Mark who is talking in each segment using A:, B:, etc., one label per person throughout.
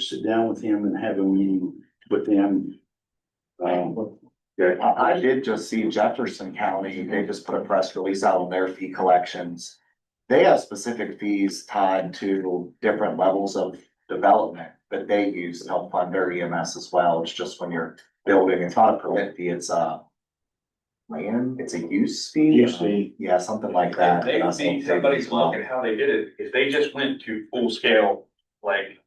A: sit down with him and have a meeting with them. Um,
B: Yeah, I I did just see Jefferson County, they just put a press release out on their fee collections. They have specific fees tied to different levels of development that they use to help fund their EMS as well. It's just when you're building, it's not a permit fee, it's a land, it's a use fee. Um,
A: Use fee.
B: Yeah, something like that.
C: They, they, somebody's looking how they did it, if they just went to full scale, like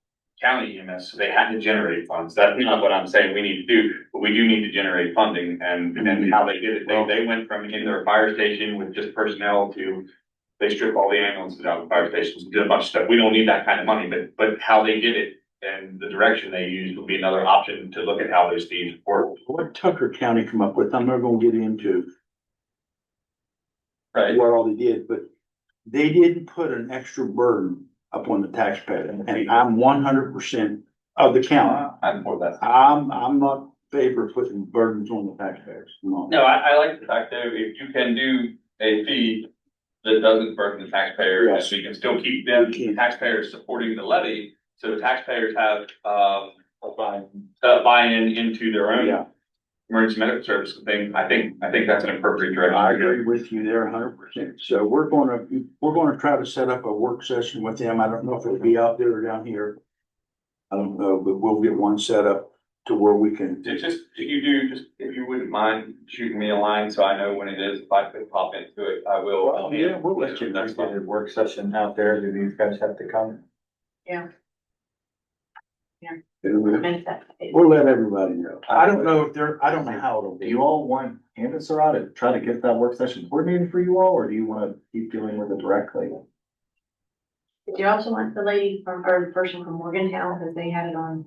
C: county EMS, so they had to generate funds, that's not what I'm saying we need to do, but we do need to generate funding, and, and how they did it, they, they went from in their fire station with just personnel to they strip all the ambulances out of fire stations, did a bunch of stuff, we don't need that kind of money, but, but how they did it and the direction they used would be another option to look at how those fees work.
A: What Tucker County come up with, I'm not gonna get into
C: Right.
A: what all they did, but they didn't put an extra burden upon the taxpayer, and I'm one hundred percent of the county.
C: I'm for that.
A: I'm, I'm not favor of putting burdens on the taxpayers, no.
C: No, I, I like the fact that if you can do a fee that doesn't burden the taxpayer, and
A: Yes.
C: we can still keep them,
A: We can.
C: taxpayers supporting the levy, so the taxpayers have, um, uh, buy-in into their
A: Yeah,
C: own emergency medical service thing, I think, I think that's an appropriate direction.
A: I
C: to go.
A: agree with you there hundred percent. So we're gonna, we're gonna try to set up a work session with them. I don't know if it'll be out there or down here. I don't know, but we'll get one set up to where we can,
C: Ju- Just, if you do, just, if you wouldn't mind shooting me a line, so I know when it is, if I could pop into it, I will.
A: Well, yeah, we'll let you know.
C: That's fine.
B: work session out there, do these guys have to come?
A: we'll
D: uh,
A: let everybody know. I don't know if they're, I don't know how it'll
B: Do
A: be.
B: you all want Anna Sarah to try to get that work session coordinated for you all, or do you wanna keep dealing with it directly?
D: Did you also want the lady from, or the person from Morgantown, because they had it on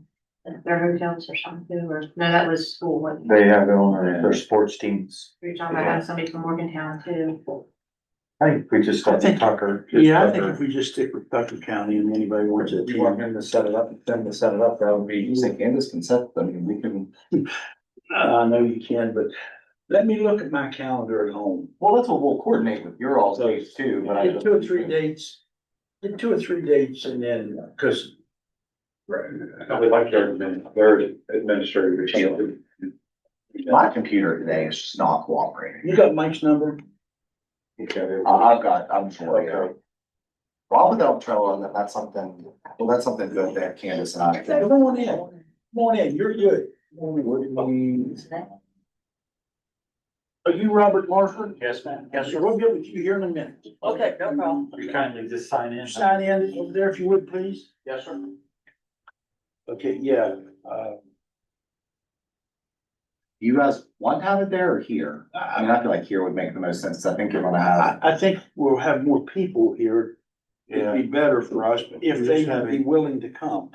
D: their hotels or something, or, no, that was school, wasn't it?
B: have it
C: on their
B: sports teams.
D: You're talking about having somebody from Morgantown too.
B: I think we just
A: got the
B: Tucker.
A: Yeah, I think if we just stick with Tucker County and anybody wants to
B: You want
A: attend.
B: him to set it up, them to set it up, that would be, you say Candace can set them, and we can.
A: I know you can, but let me look at my calendar at home.
B: Well, that's what we'll coordinate with your all's days too, but I.
A: Get two or three dates, get two or three dates and then, cause
C: Right. I would like their, admin- their administrative team.
B: My computer today is just not cooperating.
A: you got Mike's number?
B: I, Uh, I've got, I'm sorry. Rob without Trello, that, that's something, well, that's something good that Candace and I.
A: Come on in, come on in, you're good. Are you Robert Marford?
E: Yes, ma'am.
A: Yes, sir, we'll get with you here in a minute.
E: Okay, no problem.
A: You
E: kindly just sign in.
A: Sign in over there if you would, please.
E: Yes, sir.
A: Okay, yeah, uh,
B: You guys want to have it there or here? I mean, I feel like here would make the most sense. I think you're gonna have.
A: I, I think we'll have more people here. It'd be better for us if they would be willing to come.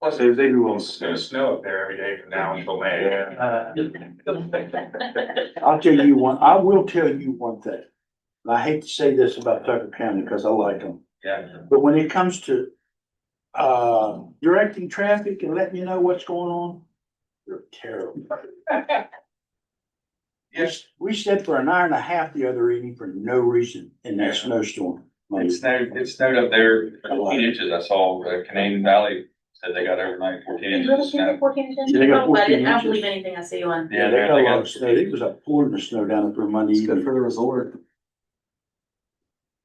C: Plus, they, they do. It's gonna snow up there every day from now until May.
E: Uh,
A: I'll tell you one, I will tell you one thing. And I hate to say this about Tucker County because I like them,
C: Yeah.
A: but when it comes to uh, directing traffic and letting you know what's going on, they're terrible. Yes, we sat for an hour and a half the other evening for no reason in that
C: Yeah.
A: snowstorm.
C: It snowed, it snowed up there
A: A lot.
C: fourteen inches. I saw the Canadian Valley said they got overnight fourteen inches of snow.
A: Yeah, they got
D: I
A: 14
D: didn't, I don't
A: inches.
D: believe anything I see on.
A: Yeah, they got a lot of snow. It was a pouring of snow down there Monday
B: It's good
A: evening.
B: for the resort.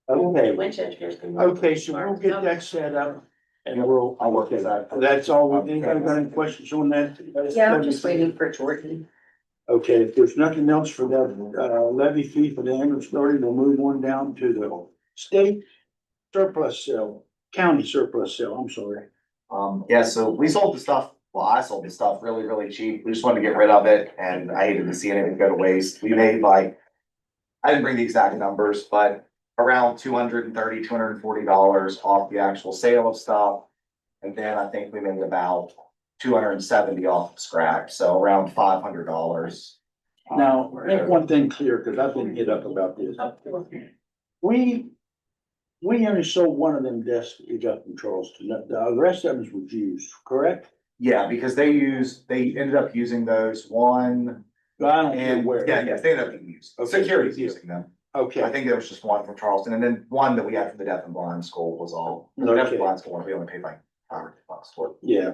A: Okay,
D: Winchester's.
A: okay, so we'll get that set up and we'll,
B: I'll work with that.
A: that's all. we- Anybody got any questions on that?
D: for Jordan.
A: Okay, if there's nothing else for that, uh, levy fee for the ambulance authority, we'll move on down to the state surplus sale, county surplus sale, I'm sorry.
B: Um, yeah, so we sold the stuff, well, I sold the stuff really, really cheap. We just wanted to get rid of it and I hated to see anything go to waste. We made like. I didn't bring the exact numbers, but around two hundred and thirty, two hundred and forty dollars off the actual sale of stuff. And then I think we made about two hundred and seventy off scrap, so around five hundred dollars.
A: Now,
B: Oh, Um,
A: make one thing clear, because I've been hit up about this.
D: Oh,
A: We, we only sold one of them desks that you got from Charleston. The- The rest of them were used, correct?
B: Yeah, because they used, they ended up using those one
A: I don't care
B: and,
A: where.
B: yeah, yes, they ended up being used.
A: Okay.
B: Security's using them. I
A: Okay,
B: think there was just one from Charleston and then one that we had from the deaf and blind school was all, the deaf and blind school, we only paid like
F: poverty funds toward
B: Yeah.